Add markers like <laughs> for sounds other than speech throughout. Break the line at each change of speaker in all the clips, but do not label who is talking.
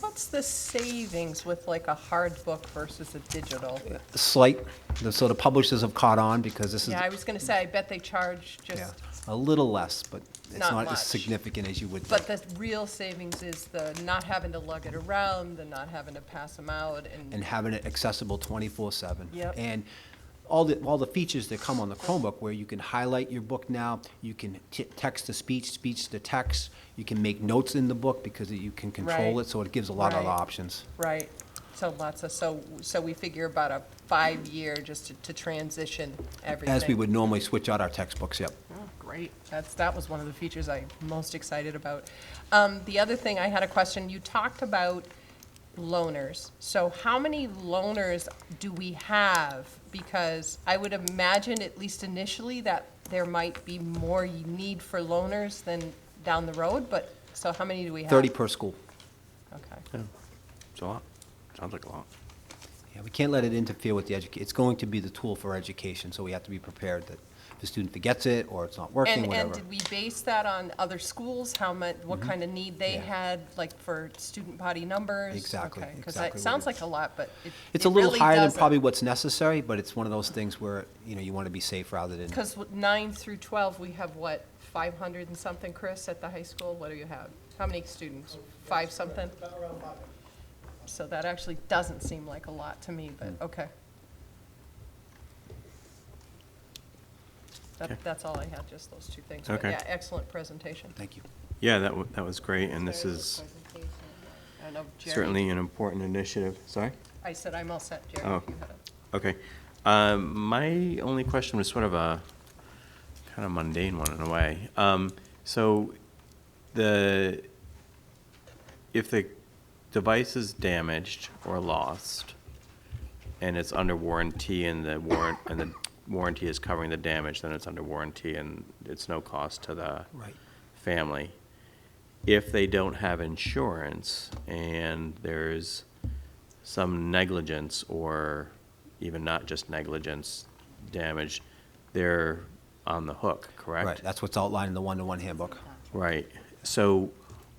what's the savings with like a hard book versus a digital?
Slight, so the publishers have caught on because this is
Yeah, I was gonna say, I bet they charge
yeah,
just,
a little less, but it's
Not
not
much.
as significant as you would
but
think.
the real savings is the not having to lug it around, the not having to pass them out
And
and,
having it accessible twenty-four seven.
Yep.
And all the, all the features that come on the Chromebook where you can highlight your book now, you can t- text to speech, speech to text, you can make notes in the book because you can control
Right.
it, so it gives a lot of
Right.
options.
right? So lots of, so, so we figure about a five-year just to, to transition everything.
As we would normally switch out our textbooks, yep.
Oh, Great, that's, that was one of the features I'm most excited about. Um, the other thing, I had a question, you talked about loners. So how many loners do we have? Because I would imagine, at least initially, that there might be more need for loners than down the road, but, so how many do we have?
Thirty per school.
Okay,
It's a lot. Sounds like a lot.
Yeah, we can't let it interfere with the education. It's going to be the tool for education, so we have to be prepared that if the student forgets it or it's not working,
and, and
whatever. Mm-hmm.
did we base that on other schools, how much, what kind of need they
Yeah.
had, like for student body numbers?
Exactly,
Because
exactly
that
what
sounds
you-
like a lot, but it
It's
it
a little
really
higher than
doesn't.
probably what's necessary, but it's one of those things where, you know, you want to be safe rather than,
Because nine through 12, we have what, 500 and something, Chris, at the high school? What do you have? How many students? Five something? So that actually doesn't seem like a lot to me, but,
Mm.
okay.
Okay.
That, that's all I had, just those two things. But
Okay.
yeah, excellent presentation.
thank you.
Yeah, that, wa- that was great, and this is
I don't know, Jerry-
certainly an important initiative. Sorry?
I said I'm all set, Jerry,
Oh.
if you had a.
Okay. Um, my only question was sort of a kind of mundane one in a way. Um, so the if the device is damaged or lost and it's under warranty and the warrant and the warranty is covering the damage, then it's under warranty and it's no cost to the
Right.
family. If they don't have insurance and there's some negligence or even not just negligence, damage, they're on the hook, correct?
Right, that's what's outlined in the one-to-one handbook.
Right. So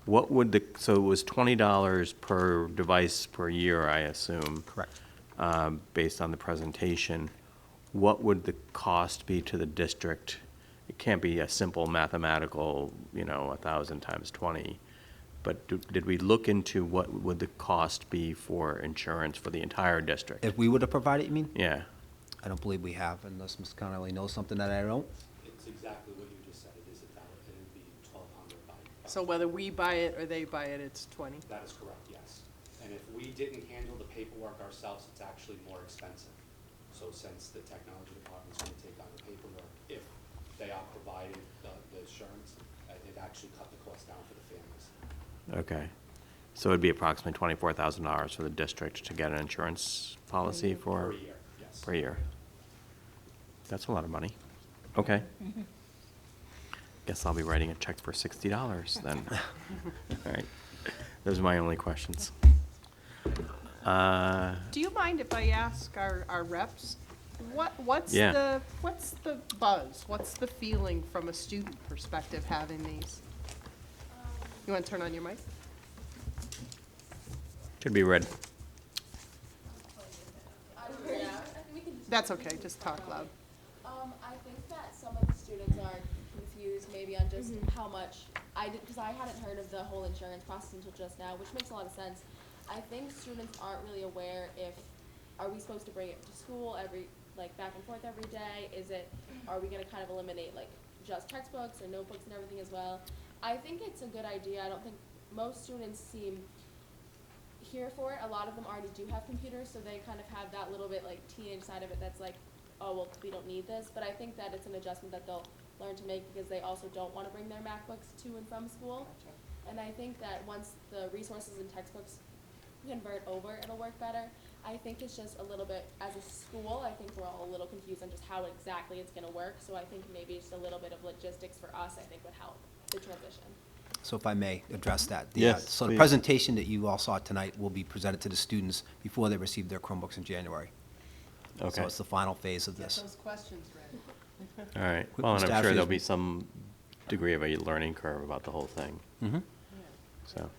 what would the, so it was twenty dollars per device per year, I assume?
Correct.
um, based on the presentation, what would the cost be to the district? It can't be a simple mathematical, you know, a thousand times twenty, but do- did we look into what would the cost be for insurance for the entire district?
If we were to provide it, you mean?
Yeah,
I don't believe we have, unless Ms. Connolly knows something that I don't.
It's exactly what you just said, it is a thousand, it would be twelve hundred by.
So whether we buy it or they buy it, it's 20?
That is correct, yes. And if we didn't handle the paperwork ourselves, it's actually more expensive. So since the technology department's gonna take on the paperwork, if they are providing the, the insurance, uh, it actually cut the cost down for the families.
okay. So it'd be approximately twenty-four thousand dollars for the district to get an insurance policy for?
Mm-hmm. Per year, yes.
Per year. That's a lot of money. Okay. Guess I'll be writing a check for sixty dollars then. <laughs> All right. Those are my only questions. Uh,
Do you mind if I ask our, our reps, what, what's
Yeah.
the, what's the buzz? What's the feeling from a student perspective having these? You want to turn on your mic?
should be red.
That's okay, just talk loud.
Um, I think that some of the students are confused maybe on just
Mm-hmm.
how much, I did, because I hadn't heard of the whole insurance process until just now, which makes a lot of sense. I think students aren't really aware if, are we supposed to bring it to school every, like, back and forth every day? Is it, are we gonna kind of eliminate, like, just textbooks and notebooks and everything as well? I think it's a good idea, I don't think, most students seem here for it. A lot of them already do have computers, so they kind of have that little bit like teenage side of it that's like, oh well, we don't need this. But I think that it's an adjustment that they'll learn to make because they also don't want to bring their MacBooks to and from school. And I think that once the resources and textbooks convert over, it'll work better. I think it's just a little bit, as a school, I think we're all a little confused on just how exactly it's gonna work. So I think maybe just a little bit of logistics for us, I think would help the transition.
So if I may address that. the, uh,
Yes,
So the
please.
presentation that you all saw tonight will be presented to the students before they receive their Chromebooks in January.
Okay.
So it's the final phase of
Get
this.
those questions ready.
All right.
Quick
Well, and I'm
staff
sure
is- Mm-hmm.
there'll be some degree of a learning curve about the whole thing.
Mhm.
So,